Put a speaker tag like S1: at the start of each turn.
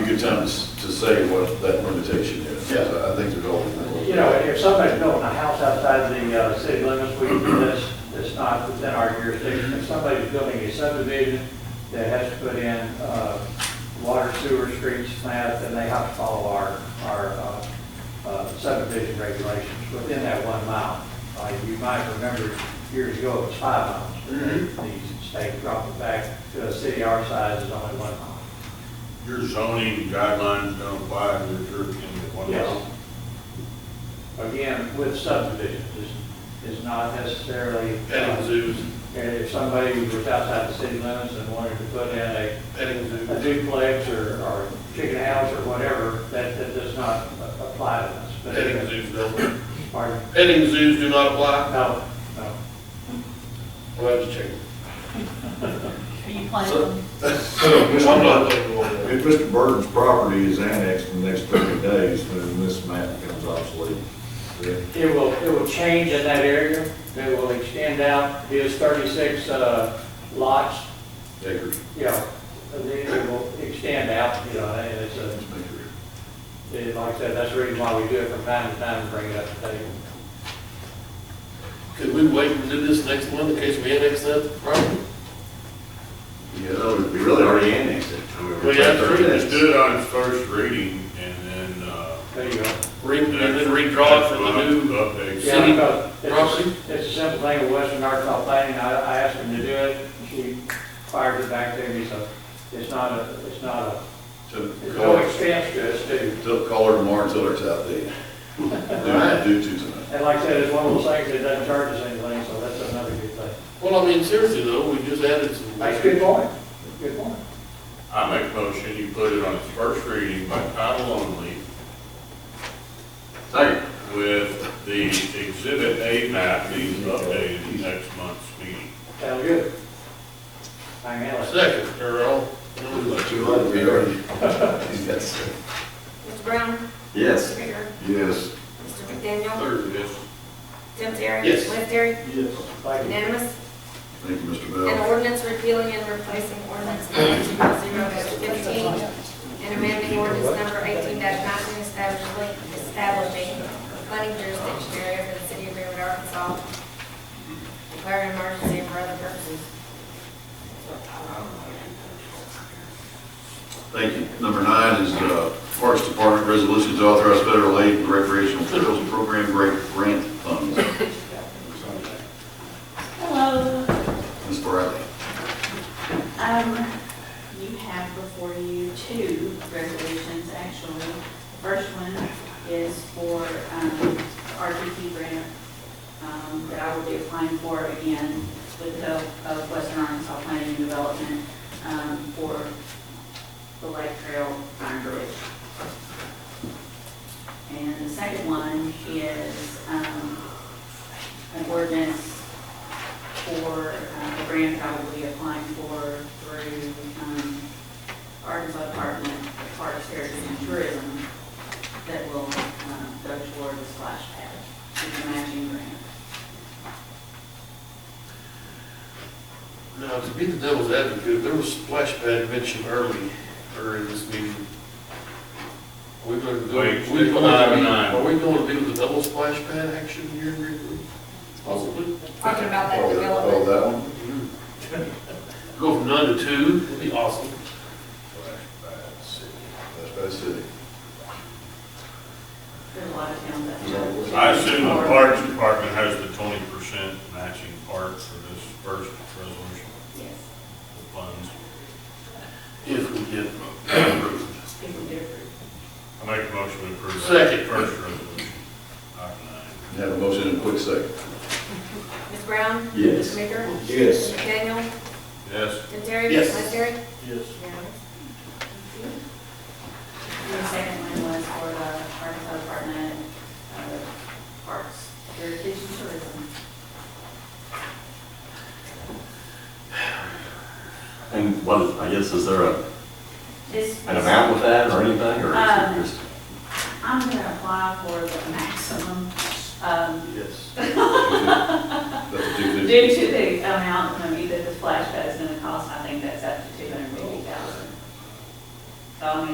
S1: good time to, s- to say what that limitation is.
S2: Yeah.
S1: I think there's always.
S3: You know, if somebody's building a house outside the uh, city limits, we do this, it's not within our jurisdiction. If somebody's building a subdivision that has to put in uh, water, sewer, streets, plant, then they have to follow our, our uh, uh, subdivision regulations within that one mile. Uh, You might remember years ago, it was five miles. but The state dropped it back to a city our size is only one mile.
S4: Your zoning guidelines don't apply to your jurisdiction at one
S3: Yes.
S4: house.
S3: Again, with subdivisions, is, is not necessarily. uh,
S2: Petting zoos,
S3: And if somebody was outside the city limits and wanted to put in a
S2: petting
S3: a
S2: zoos.
S3: duplex or, or chicken house or whatever, that, that does not a- apply to us. But-
S2: Petting zoos don't,
S3: Pardon?
S2: petting zoos do not apply?
S3: No, no.
S2: Well, I was checking.
S5: Are you planning?
S1: So,
S2: I'm
S1: Mr.
S2: not
S1: Bud,
S2: thinking about that.
S1: if Mr. Burton's property is annexed in the next thirty days, then this map becomes obsolete. correct?
S3: It will, it will change in that area. It will extend out his thirty-six, uh, lots,
S1: Acres.
S3: you know, and then it will extend out, you know, and it's a, it- like I said, that's the reason why we do it from time to time, and bring it up to date.
S2: Could we wait and do this next one in case we annex that property?
S1: Yeah,
S6: We really already annexed it. I mean,
S4: We have to
S6: that's-
S4: just do it on its first reading and then, uh.
S3: There you go.
S2: Re- And then redraw it from the new
S4: Updates.
S3: Yeah,
S2: City
S3: because it's a-
S2: property?
S3: It's a simple thing with Western Arkansas planning, I, I asked them to do it, she fired it back to me, so it's not a, it's not a,
S1: To
S3: it's no
S1: call,
S3: expense to us too.
S1: to call her tomorrow and tell her it's outdated. Do not do two tonight.
S3: And like I said, it's one of those things that doesn't charge us anything, so that's another good thing.
S2: Well, I mean, seriously though, we just added some.
S3: That's a good point, good point.
S4: I make a motion, you put it on its first reading by title only
S6: Second.
S4: with the exhibit A map being updated in next month's meeting.
S3: Sounds good. Hang on, let's-
S2: Second, Earl.
S1: Too late, we already. Yes.
S7: Mr. Brown?
S6: Yes.
S7: Mr. Bicker?
S1: Yes.
S7: Mr. McDaniel?
S4: Third, yes.
S7: Tim Terry?
S2: Yes.
S7: Cliff Terry?
S3: thank you.
S7: Unanimous?
S1: Thank you, Mr.
S7: An
S1: Bell.
S7: ordinance repealing and replacing ordinance number two zero fifteen and amending ordinance number eighteen nineteen establishing, establishing planning jurisdiction area for the city of Greenwood, Arkansas. Declaring emergency for other purposes.
S1: Thank you. Number nine is uh, Parks Department resolution to authorize federal aid and recreational trails program grant grant funds.
S5: Hello.
S1: Ms. Bradley.
S5: Um, you have before you two resolutions, actually. The First one is for, um, RTP grant, um, that I will be applying for again with the help of Western Arkansas Planning and Development, um, for the Lake Trail Iron Bridge. And the second one is, um, an ordinance for uh, the grant I will be applying for through um, Arkansas Department of Parks, Heritage, and Tourism that will um, go toward the splash pad, the matching grant.
S2: Now, to be the devil's advocate, there was splash pad mentioned early, or in this meeting. Are we going to go?
S4: Wait,
S2: we
S4: stick
S2: going to be-
S4: nine, nine.
S2: Are we going to be with the double splash pad action here in Greenwood? Possibly?
S7: Talking about that
S1: Oh, Oh,
S7: development.
S1: that one?
S2: Go from none to two, it'd be awesome.
S1: That's by the city.
S5: There's a lot of towns that.
S4: I assume the Parks Department has the twenty percent matching part for this first resolution
S5: Yes,
S4: of funds.
S2: If we get approved.
S5: if we get approved.
S4: I make a motion to approve. that
S2: Second.
S4: First resolution, item nine.
S1: You Have a motion in a quick second.
S7: Ms. Brown?
S6: Yes.
S7: Mr. Bicker?
S6: Yes.
S7: Mr. McDaniel?
S4: Yes.
S7: Tim Terry?
S2: Yes.
S7: Cliff Terry?
S2: Yes.
S7: Unanimous?
S5: The second one was for the Arkansas Department of Parks, Heritage, and Tourism.
S6: And what, I guess, is there a,
S5: This-
S6: an amount with that or anything, or
S5: Um,
S6: is it just?
S5: I'm going to apply for the maximum um,
S2: Yes.
S1: That's a two fifty.
S5: Due to the amount of money that the splash pad is gonna cost, I think that's up to two hundred and fifty thousand. So I mean,